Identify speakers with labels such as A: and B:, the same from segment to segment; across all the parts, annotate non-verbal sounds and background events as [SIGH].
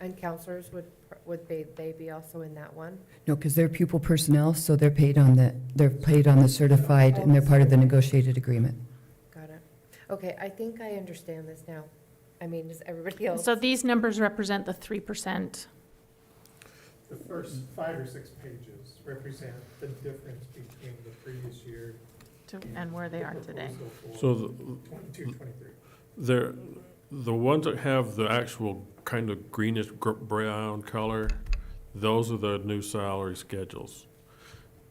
A: And counselors, would, would they, they be also in that one?
B: No, because they're pupil personnel, so they're paid on the, they're paid on the certified, and they're part of the negotiated agreement.
A: Got it. Okay, I think I understand this now. I mean, does everybody else?
C: So these numbers represent the three percent.
D: The first five or six pages represent the difference between the previous year.
C: And where they
D: the
C: are today.
D: proposal for
E: So the-
D: Twenty-two, twenty-three.
E: They're, the ones that have the actual kind of greenish gr- brown color, those are the new salary schedules.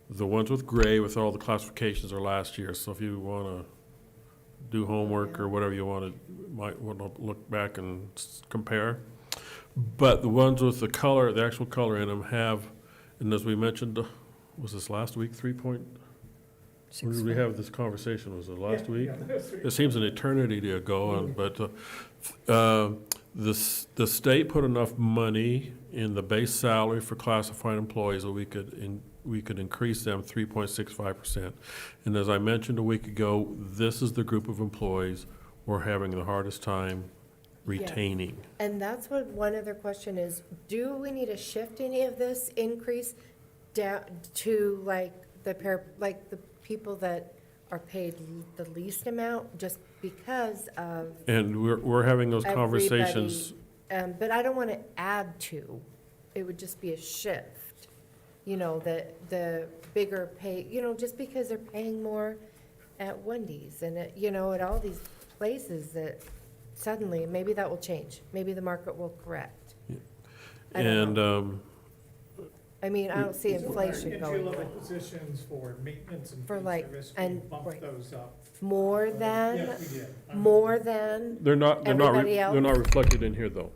E: The ones with gray with all the classifications are last year, so if you wanna do homework or whatever you wanna, might wanna look back and s- compare. But the ones with the color, the actual color in them have, and as we mentioned, was this last week, three point? When did we have this conversation? Was it last
D: Yeah,
E: week?
D: yeah, that's right.
E: It seems an eternity ago,
A: Mm-hmm.
E: and- but uh, uh, the, s- the state put enough money in the base salary for classified employees that we could, in- we could increase them 3.65%. And as I mentioned a week ago, this is the group of employees we're having the hardest time retaining.
A: And that's what, one other question is, do we need to shift any of this increase down to like the pair, like the people that are paid the least amount just because of,
E: And we're, we're having those conversations.
A: um, but I don't want to add to. It would just be a shift, you know, the, the bigger pay, you know, just because they're paying more at Wendy's and at, you know, at all these places that suddenly, maybe that will change. Maybe the market will correct. I don't
E: And, uh,
A: know.
E: um,
A: I mean, I don't see
D: So our
A: inflation going
D: Entry-level
A: up.
D: positions for maintenance and
A: For
D: food
A: like-
D: service, we
A: and- right.
D: bumped those up. Uh,
A: More
D: Yes,
A: than,
D: we did. Uh, I'm-
A: more than,
E: they're not, they're not, re-
A: Everybody else?
E: they're not reflected in here, though.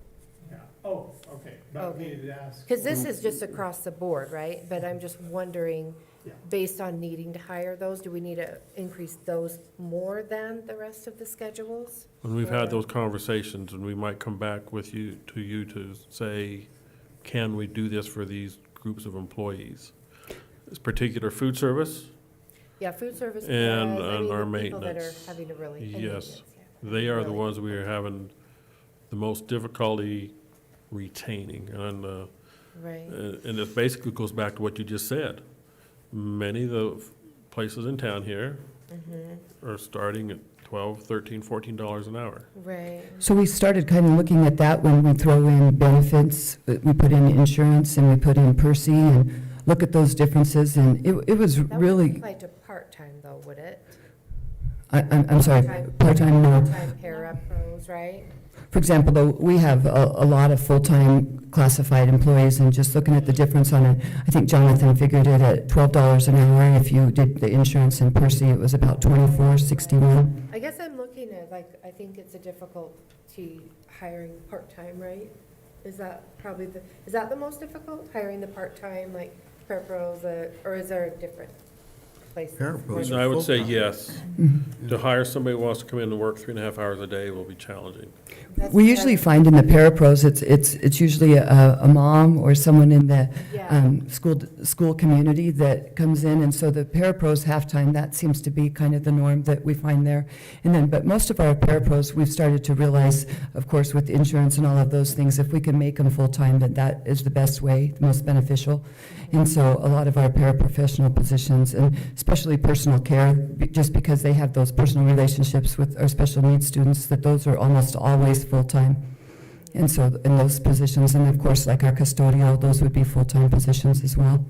D: Yeah, oh, okay, but we
A: Okay.
D: needed to ask.
A: because this
E: Mm.
A: is just across the board, right? But I'm just wondering,
D: Yeah.
A: based on needing to hire those, do we need to increase those more than the rest of the schedules?
E: And we've had
A: Or-
E: those conversations, and we might come back with you, to you to say, can we do this for these groups of employees? This particular food service,
A: Yeah, food service.
E: And-
A: does, I
E: and
A: mean,
E: our
A: the people that are
E: maintenance.
A: having to really. and
E: Yes.
A: maintenance, yeah.
E: they are the
A: Really?
E: ones we are having the most difficulty retaining. And, uh,
A: Right,
E: Uh, And it basically goes back to what you just said. Many of the f- places in town here are starting at twelve, thirteen, fourteen dollars an hour.
A: right.
B: So we started kind of looking at that when we throw in benefits, uh, we put in insurance, and we put in Percy, and look at those differences, and it, it was
A: That wouldn't
B: really,
A: apply to part-time though, would it?
B: I, I'm, I'm sorry,
A: Part-time-
B: part-time, no.
A: Part-time parapros, right?
B: For example, though, we have a, a lot of full-time classified employees, and just looking at the difference on it, I think Jonathan figured it at twelve dollars an hour, and if you did the insurance in Percy, it was about twenty-four sixty-one.
A: I guess I'm looking at, like, I think it's a difficulty hiring part-time, right? Is that probably the, is that the most difficult, hiring the part-time, like, preparos, uh, or is there a different place?
F: Parapros. Those
E: And
F: are
E: I would say
F: full-time.
E: yes. To hire somebody who wants to come in and work three and a half hours a day will be challenging.
B: We usually find in the parapros, it's, it's, it's usually a, a mom or someone in the,
A: Yeah,
B: um, school, school community that comes in, and so the parapros halftime, that seems to be kind of the norm that we find there. And then, but most of our parapros, we've started to realize, of course, with insurance and all of those things, if we can make them full-time, that that is the best way, the most beneficial. And so a lot of our paraprofessional positions, and especially personal care, be- just because they have those personal relationships with our special needs students, that those are almost always full-time. And so, in those positions, and of course, like our custodial, those would be full-time positions as well.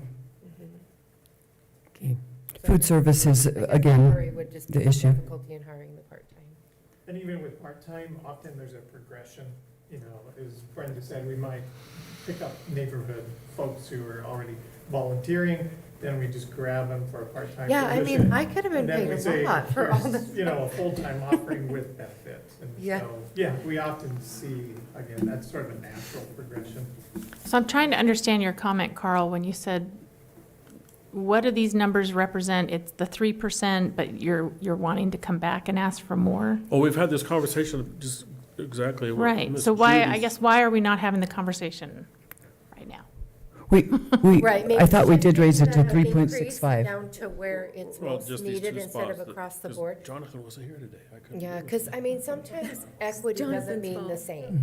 A: Mm-hmm.
B: Food services, uh, again,
A: Temporary would just
B: the
A: be the
B: issue.
A: difficulty in hiring the part-time.
D: And even with part-time, often there's a progression, you know, as Brenda said, we might pick up neighborhood folks who are already volunteering, then we just grab them for a part-time
A: Yeah, I
D: position.
A: mean, I could have been
D: And then
A: paid
D: we
A: a
D: say,
A: lot for all the,
D: here's, you know, a full-time offering with benefits. And
A: Yeah.
D: so, Yeah, we often see, again, that's sort of a natural progression.
C: So I'm trying to understand your comment, Carl, when you said, what do these numbers represent? It's the three percent, but you're, you're wanting to come back and ask for more?
E: Oh, we've had this conversation just exactly. what
C: Right,
E: Ms.
C: so why, I
E: Judy's-
C: guess, why are we not having the conversation right now?
B: we,
A: [LAUGHS]
B: we,
A: right. maybe
B: I thought we did raise it to
A: should have
B: three point
A: increased
B: six five.
A: Down to where it's
E: Well,
A: most
E: just these
A: needed
E: two
A: instead of
E: spots that-
A: across the
E: 'cause
A: board.
E: Jonathan wasn't here today. I couldn't.
A: Yeah,
E: do it.
A: because, I mean, sometimes equity doesn't
G: Jonathan's
A: mean the
G: fault.
A: same.